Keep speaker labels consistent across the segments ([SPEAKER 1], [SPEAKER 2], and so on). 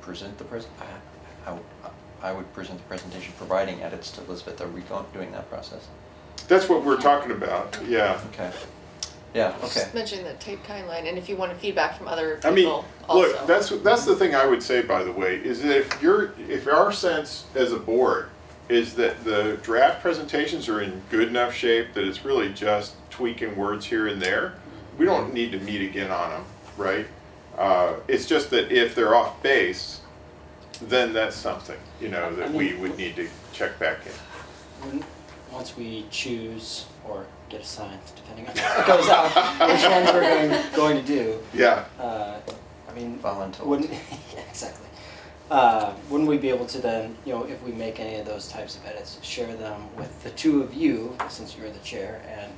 [SPEAKER 1] present the pres, I, I, I would present the presentation, providing edits to Elizabeth, are we going, doing that process?
[SPEAKER 2] That's what we're talking about, yeah.
[SPEAKER 1] Okay, yeah, okay,
[SPEAKER 3] Just mention the tape timeline, and if you wanted feedback from other
[SPEAKER 2] I mean,
[SPEAKER 3] people also.
[SPEAKER 2] look, that's, that's the thing I would say, by the way, is that if you're, if our sense as a board is that the draft presentations are in good enough shape that it's really just tweaking words here and there, we don't need to meet again on them, right? Uh, it's just that if they're off base, then that's something, you know, that we would need to check back in.
[SPEAKER 4] When, once we choose or get assigned, depending on what goes out, which ones we're going, going to do,
[SPEAKER 2] Yeah,
[SPEAKER 4] uh, I mean,
[SPEAKER 1] voluntold,
[SPEAKER 4] wouldn't, yeah, exactly. Uh, wouldn't we be able to then, you know, if we make any of those types of edits, share them with the two of you, since you're the chair and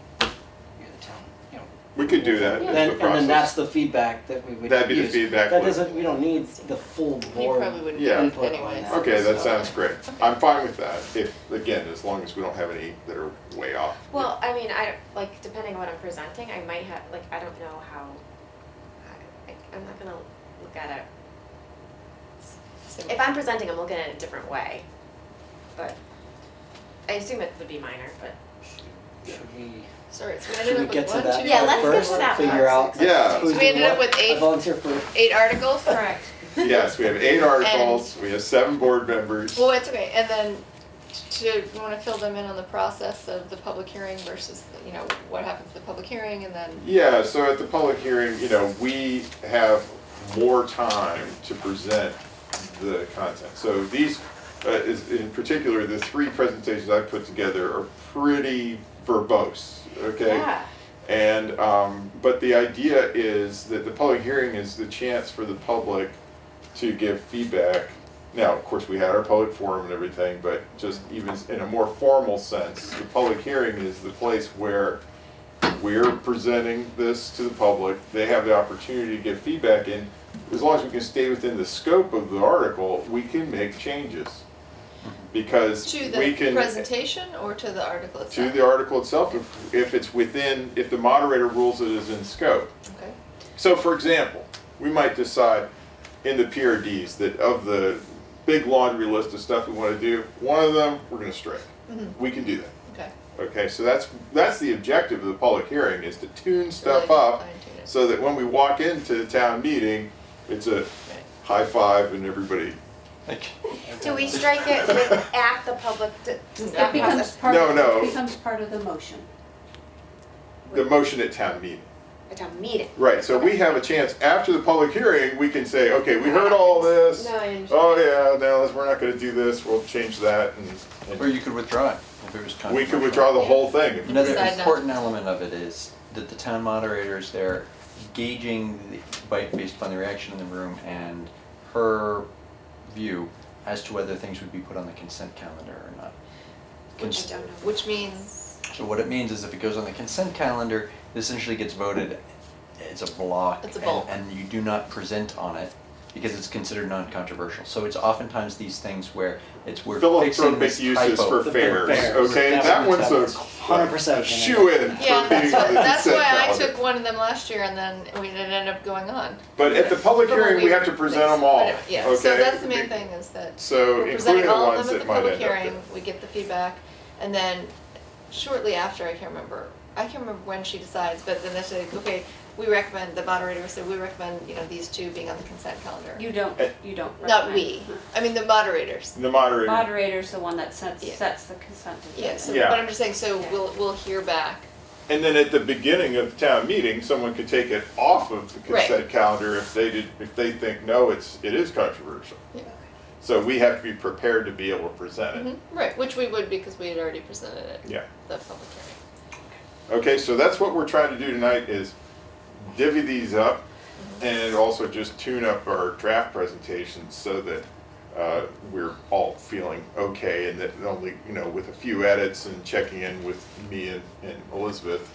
[SPEAKER 4] you're the town, you know.
[SPEAKER 2] we could do that as
[SPEAKER 4] Then,
[SPEAKER 2] the
[SPEAKER 4] and then that's
[SPEAKER 2] process.
[SPEAKER 4] the feedback that we would use.
[SPEAKER 2] That'd be the feedback
[SPEAKER 4] That
[SPEAKER 2] loop.
[SPEAKER 4] doesn't, we don't need the full
[SPEAKER 3] You
[SPEAKER 4] board.
[SPEAKER 3] probably wouldn't
[SPEAKER 2] Yeah.
[SPEAKER 3] get
[SPEAKER 4] input
[SPEAKER 3] it
[SPEAKER 4] on
[SPEAKER 3] anyways.
[SPEAKER 4] that.
[SPEAKER 2] Okay, that
[SPEAKER 4] So-
[SPEAKER 2] sounds great. I'm fine with that, if, again, as long as we don't have any that are way off.
[SPEAKER 5] Well, I mean, I don't, like depending on what I'm presenting, I might have like I don't know how. I, I- I'm not gonna look at it. If I'm presenting, I'm looking at it a different way. But I assume it would be minor, but
[SPEAKER 4] Should we?
[SPEAKER 3] Sorry, so we
[SPEAKER 4] Should
[SPEAKER 3] ended
[SPEAKER 4] we
[SPEAKER 3] up with
[SPEAKER 4] get to
[SPEAKER 3] one,
[SPEAKER 4] that?
[SPEAKER 3] two,
[SPEAKER 5] Yeah,
[SPEAKER 4] part
[SPEAKER 5] let's get
[SPEAKER 4] first
[SPEAKER 5] to
[SPEAKER 4] and
[SPEAKER 5] that
[SPEAKER 4] Figure
[SPEAKER 5] part.
[SPEAKER 4] out.
[SPEAKER 2] Yeah.
[SPEAKER 4] who's
[SPEAKER 3] We
[SPEAKER 4] doing
[SPEAKER 3] ended up
[SPEAKER 4] what?
[SPEAKER 3] with eight-
[SPEAKER 4] I volunteer for.
[SPEAKER 3] eight articles?
[SPEAKER 5] correct.
[SPEAKER 2] Yes, we have eight articles, we have seven board members.
[SPEAKER 3] Well, it's okay, and then to, you wanna fill them in on the process of the public hearing versus, the- you know, what happens at the public hearing, and then,
[SPEAKER 2] Yeah, so at the public hearing, you know, we have more time to present the content. So these, uh, is, in particular, the three presentations I put together are pretty verbose, okay?
[SPEAKER 5] Yeah.
[SPEAKER 2] And, um, but the idea is that the public hearing is the chance for the public to give feedback. Now, of course, we had our public forum and everything, but just even in a more formal sense, the public hearing is the place where we're presenting this to the public, they have the opportunity to give feedback in. As long as we can stay within the scope of the article, we can make changes. Because
[SPEAKER 3] to
[SPEAKER 2] we
[SPEAKER 3] the
[SPEAKER 2] can
[SPEAKER 3] presentation or to the article
[SPEAKER 2] to
[SPEAKER 3] itself?
[SPEAKER 2] the article itself if, if it's within, if the moderator rules it is in scope.
[SPEAKER 3] Okay,
[SPEAKER 2] So for example, we might decide in the PRDs that of the big laundry list of stuff we want to do, one of them we're going to strike.
[SPEAKER 3] Mm-hmm.
[SPEAKER 2] We can do that.
[SPEAKER 3] okay.
[SPEAKER 2] Okay, so that's that's the objective of the public hearing is to tune stuff
[SPEAKER 3] Really
[SPEAKER 2] up
[SPEAKER 3] fine tune it.
[SPEAKER 2] so that when we walk into the town meeting, it's a
[SPEAKER 3] Right.
[SPEAKER 2] high five and everybody.
[SPEAKER 1] like,
[SPEAKER 5] Do we strike it with at the public? d- Does that
[SPEAKER 6] It becomes
[SPEAKER 5] process?
[SPEAKER 6] part,
[SPEAKER 2] No, no.
[SPEAKER 6] it becomes part of the motion.
[SPEAKER 2] The motion at town meeting.
[SPEAKER 5] At a meeting.
[SPEAKER 2] Right, so we have a chance after the public hearing, we can say, okay, we heard all this.
[SPEAKER 5] No, I understand.
[SPEAKER 2] Oh yeah, no, let's- we're not gonna do this, we'll change that and,
[SPEAKER 1] or
[SPEAKER 2] and
[SPEAKER 1] you could withdraw it, if it was controversial.
[SPEAKER 2] we could withdraw the whole thing. if-
[SPEAKER 1] Another
[SPEAKER 3] Decide not
[SPEAKER 1] important element of it is that the town moderators there gauging the, by, based upon the reaction in the room and her view as to whether things would be put on the consent calendar or not.
[SPEAKER 5] Which
[SPEAKER 1] Cons-
[SPEAKER 5] I don't know.
[SPEAKER 3] Which means,
[SPEAKER 1] So what it means is if it goes on the consent calendar, this essentially gets voted as a block.
[SPEAKER 3] It's a
[SPEAKER 1] and-
[SPEAKER 3] bulk.
[SPEAKER 1] And you do not present on it because it's considered non-controversial. So it's oftentimes these things where it's, we're fixing
[SPEAKER 2] Philanthropic
[SPEAKER 1] this
[SPEAKER 2] uses
[SPEAKER 1] typo.
[SPEAKER 2] for
[SPEAKER 4] The
[SPEAKER 2] fairs,
[SPEAKER 4] fairs.
[SPEAKER 2] okay,
[SPEAKER 4] That's
[SPEAKER 2] that
[SPEAKER 4] what
[SPEAKER 2] one's
[SPEAKER 4] that is.
[SPEAKER 2] a.
[SPEAKER 4] 100%
[SPEAKER 2] Shoe in for being
[SPEAKER 3] yeah, that's
[SPEAKER 2] on
[SPEAKER 3] why,
[SPEAKER 2] the
[SPEAKER 3] that's
[SPEAKER 2] consent
[SPEAKER 3] why I
[SPEAKER 2] calendar.
[SPEAKER 3] took one of them last year, and then we didn't end up going on.
[SPEAKER 2] But at the public
[SPEAKER 3] From what
[SPEAKER 2] hearing, we have to
[SPEAKER 3] read,
[SPEAKER 2] present them
[SPEAKER 3] but-
[SPEAKER 2] all,
[SPEAKER 3] Yeah, so
[SPEAKER 2] okay?
[SPEAKER 3] that's the main thing is that
[SPEAKER 2] So
[SPEAKER 3] we're
[SPEAKER 2] including
[SPEAKER 3] presenting
[SPEAKER 2] the
[SPEAKER 3] all of
[SPEAKER 2] ones
[SPEAKER 3] them at
[SPEAKER 2] that
[SPEAKER 3] the
[SPEAKER 2] might
[SPEAKER 3] public
[SPEAKER 2] end up
[SPEAKER 3] hearing,
[SPEAKER 2] there.
[SPEAKER 3] we get the feedback, and then shortly after, I can't remember, I can't remember when she decides, but then they say, okay, we recommend, the moderator said, we recommend, you know, these two being on the consent calendar.
[SPEAKER 6] You don't,
[SPEAKER 2] Eh.
[SPEAKER 6] you don't.
[SPEAKER 3] Not
[SPEAKER 6] recommend.
[SPEAKER 3] we, I mean the moderators,
[SPEAKER 2] The moderator,
[SPEAKER 6] Moderator's the one that sets,
[SPEAKER 3] Yeah.
[SPEAKER 6] sets the consent agenda.
[SPEAKER 3] yeah, so,
[SPEAKER 2] Yeah.
[SPEAKER 3] but I'm just saying, so
[SPEAKER 6] Yeah.
[SPEAKER 3] we'll, we'll hear back,
[SPEAKER 2] and then at the beginning of the town meeting, someone could take it off of the
[SPEAKER 3] Right.
[SPEAKER 2] consent calendar if they did, if they think, no, it's, it is controversial.
[SPEAKER 3] Yeah.
[SPEAKER 2] So we have to be prepared to be able to present it,
[SPEAKER 3] Mhm. right, which we would because we had already presented it,
[SPEAKER 2] yeah.
[SPEAKER 3] the public hearing.
[SPEAKER 2] Okay, so that's what we're trying to do tonight is divvy these up and also just tune up our draft presentations so that uh, we're all feeling okay and that only, you know, with a few edits and checking in with me and and Elizabeth,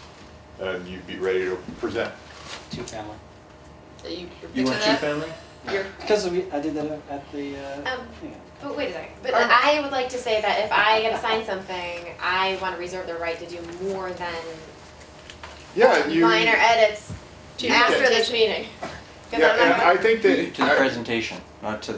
[SPEAKER 2] um, you'd be ready to present.
[SPEAKER 4] Two family.
[SPEAKER 3] Are you, you're
[SPEAKER 1] You
[SPEAKER 3] picking
[SPEAKER 1] want two
[SPEAKER 3] that?
[SPEAKER 1] family?
[SPEAKER 3] You're,
[SPEAKER 4] Because we, I did that at the. Uh,
[SPEAKER 5] Um,
[SPEAKER 4] thing.
[SPEAKER 5] But wait a second, but
[SPEAKER 3] Or-
[SPEAKER 5] I would like to say that if I am assigned something, I wanna reserve the right to do more than
[SPEAKER 2] Yeah, and you,
[SPEAKER 5] minor
[SPEAKER 2] yeah,
[SPEAKER 5] edits
[SPEAKER 3] to your
[SPEAKER 5] after this
[SPEAKER 3] presentation.
[SPEAKER 5] meeting. 'Cause I'm not
[SPEAKER 2] and
[SPEAKER 5] gonna-
[SPEAKER 2] I think
[SPEAKER 1] To the
[SPEAKER 2] that,
[SPEAKER 1] presentation, not to